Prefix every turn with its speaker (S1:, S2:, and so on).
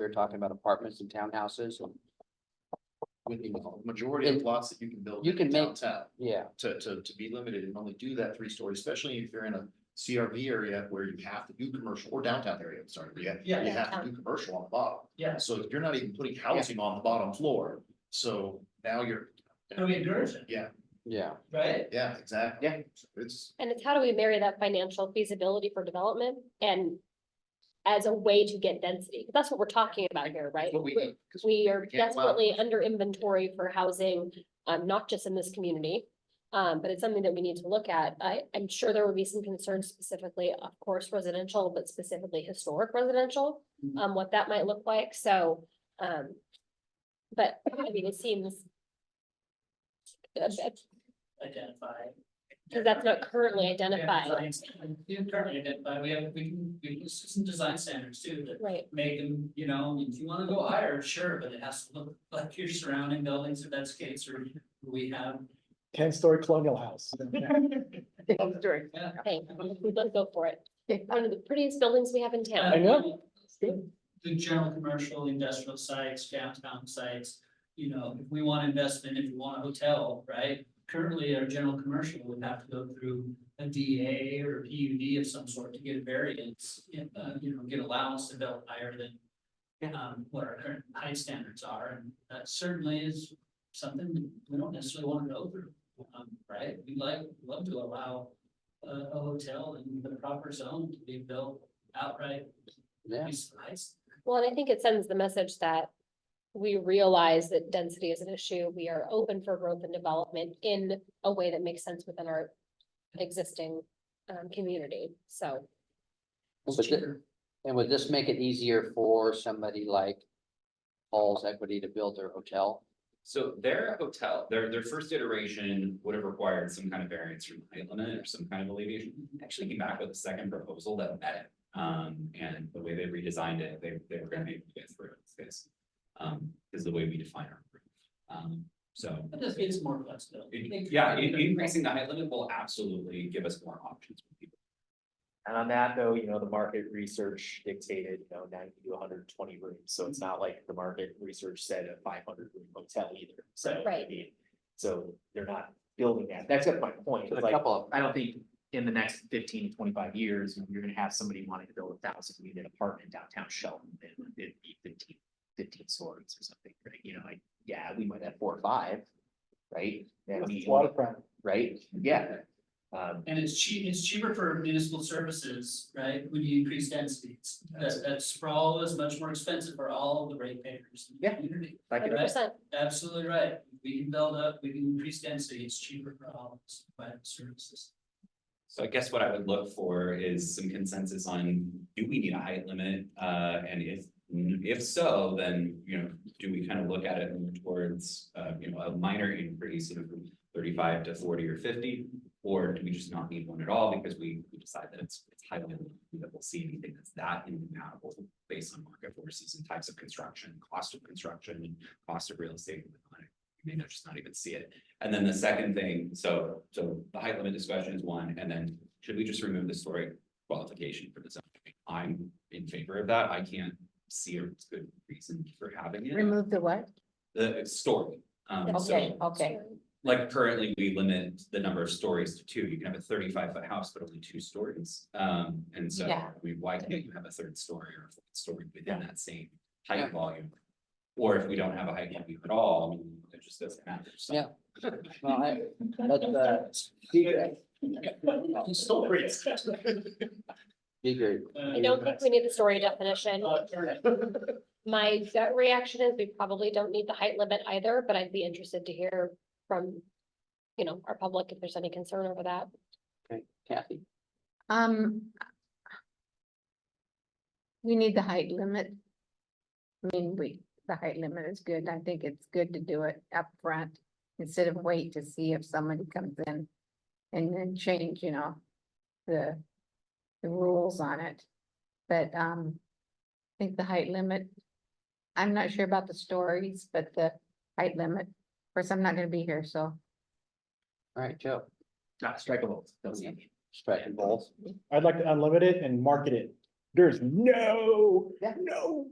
S1: you're talking about apartments and townhouses.
S2: With the majority of lots that you can build
S1: You can
S2: in
S1: make-
S2: downtown,
S1: Yeah,
S2: to, to, to be limited and only do that three stories, especially if you're in a CRV area where you have to do commercial, or downtown area, I'm sorry, where you have,
S3: Yeah.
S2: you have to do commercial on the bottom.
S3: Yes,
S2: So if you're not even putting housing on the bottom floor, so now you're,
S3: so we endorse it,
S1: yeah.
S3: right?
S2: yeah, exactly.
S1: Yeah.
S2: It's,
S4: And it's how do we marry that financial feasibility for development and as a way to get density? 'Cause That's what we're talking about here, right?
S2: what we
S4: We-
S2: need, 'cause
S4: We are
S2: can't allow-
S4: desperately under inventory for housing, um, not just in this community. Um, but it's something that we need to look at. I, I'm sure there would be some concerns specifically, of course, residential, but specifically historic residential.
S2: Mm-hmm.
S1: Mhm.
S4: Um, what that might look like, so, um. But, I mean, it seems. uh,
S3: Identify.
S4: Cause that's not currently
S3: Yeah,
S4: identified,
S3: design- You currently identify, we have, we can, we can use some design standards too, that
S4: right?
S3: make them, you know, if you wanna go higher, sure, but it has to look like your surrounding buildings, if that's the case, or we have.
S5: Ten-story colonial house.
S3: Yeah.
S4: Hey, let's go for it. One of the prettiest buildings we have in town.
S5: I know.
S3: The general commercial, industrial sites, downtown sites, you know, if we want investment, if we want a hotel, right? Currently, our general commercial would have to go through a DA or a PUD of some sort to get a variance, and, uh, you know, get allowance to build higher than. Um, what our current height standards are, and that certainly is something that we don't necessarily want to go through, um, right? We'd like, love to allow a, a hotel in the proper zone to be built outright
S1: Yeah,
S3: Nice, nice.
S4: Well, and I think it sends the message that we realize that density is an issue. We are open for growth and development in a way that makes sense within our existing um community, so.
S1: But thi- and would this make it easier for somebody like Paul's Equity to build their hotel?
S6: So their hotel, their, their first iteration would have required some kind of variance from the height limit or some kind of alleviation. Actually came back with a second proposal that met it. Um, and the way they redesigned it, they, they were gonna make you guys through this space. Um, is the way we define our roof. Um, so,
S3: That just gives more flexibility.
S6: it- yeah, in- increasing the height limit will absolutely give us more options. for people.
S7: And on that though, you know, the market research dictated, you know, ninety to hundred and twenty rooms, so it's not like the market research said a five hundred room hotel either, so. I
S4: Right.
S7: mean, So they're not building that, that's just my point,
S1: A
S7: it's like,
S1: couple of,
S7: I don't think in the next fifteen to twenty-five years, you know, you're gonna have somebody wanting to build a thousand unit apartment downtown Shelton, and it'd be fifteen, fifteen stories or something, right, you know, like, yeah, we might have four or five, right? That
S5: It's
S7: means-
S5: Waterfront.
S7: Right, yeah. Um,
S3: And it's cheap, it's cheaper for municipal services, right, when you increase densities. That, that sprawl is much more expensive for all of the ratepayers. in the
S7: Yeah.
S3: community.
S7: I
S4: Hundred
S7: can,
S4: percent,
S3: Absolutely right. We can build up, we can increase density, it's cheaper for all of us, by the services.
S6: So I guess what I would look for is some consensus on, do we need a height limit? Uh, and if, if so, then, you know, do we kind of look at it more towards, uh, you know, a minor increase of thirty-five to forty or fifty? Or do we just not need one at all because we, we decide that it's, it's highly unlikely that we'll see anything that's that insurmountable based on market forces and types of construction, cost of construction, and cost of real estate. and whatnot. You may not just not even see it. And then the second thing, so, so the height limit discussion is one, and then should we just remove the story qualification for the zone? I'm in favor of that. I can't see a good reason for having it.
S8: Remove the what?
S6: The story. Um,
S8: Okay,
S6: so,
S8: okay.
S6: like currently, we limit the number of stories to two. You can have a thirty-five foot house, but only two stories. Um, and so, I
S8: Yeah.
S6: mean, why can't you have a third story or a fourth story within that same height volume? Or if we don't have a height volume at all, I mean, it just doesn't matter. So-
S1: Yeah. well, I, that's, uh, be great,
S7: uh,
S2: still great.
S1: be great.
S3: Uh,
S4: I don't think we need the story definition.
S7: Uh,
S4: My gut reaction is we probably don't need the height limit either, but I'd be interested to hear from. You know, our public if there's any concern over that.
S1: Kathy,
S8: Um. We need the height limit. I mean, we, the height limit is good. I think it's good to do it up front instead of wait to see if somebody comes in. And then change, you know, the, the rules on it. But, um, I think the height limit. I'm not sure about the stories, but the height limit, of course, I'm not gonna be here, so.
S1: all right, Joe,
S7: not strikeable, doesn't mean.
S1: striking balls.
S5: I'd like to unlimit it and market it. There's no, no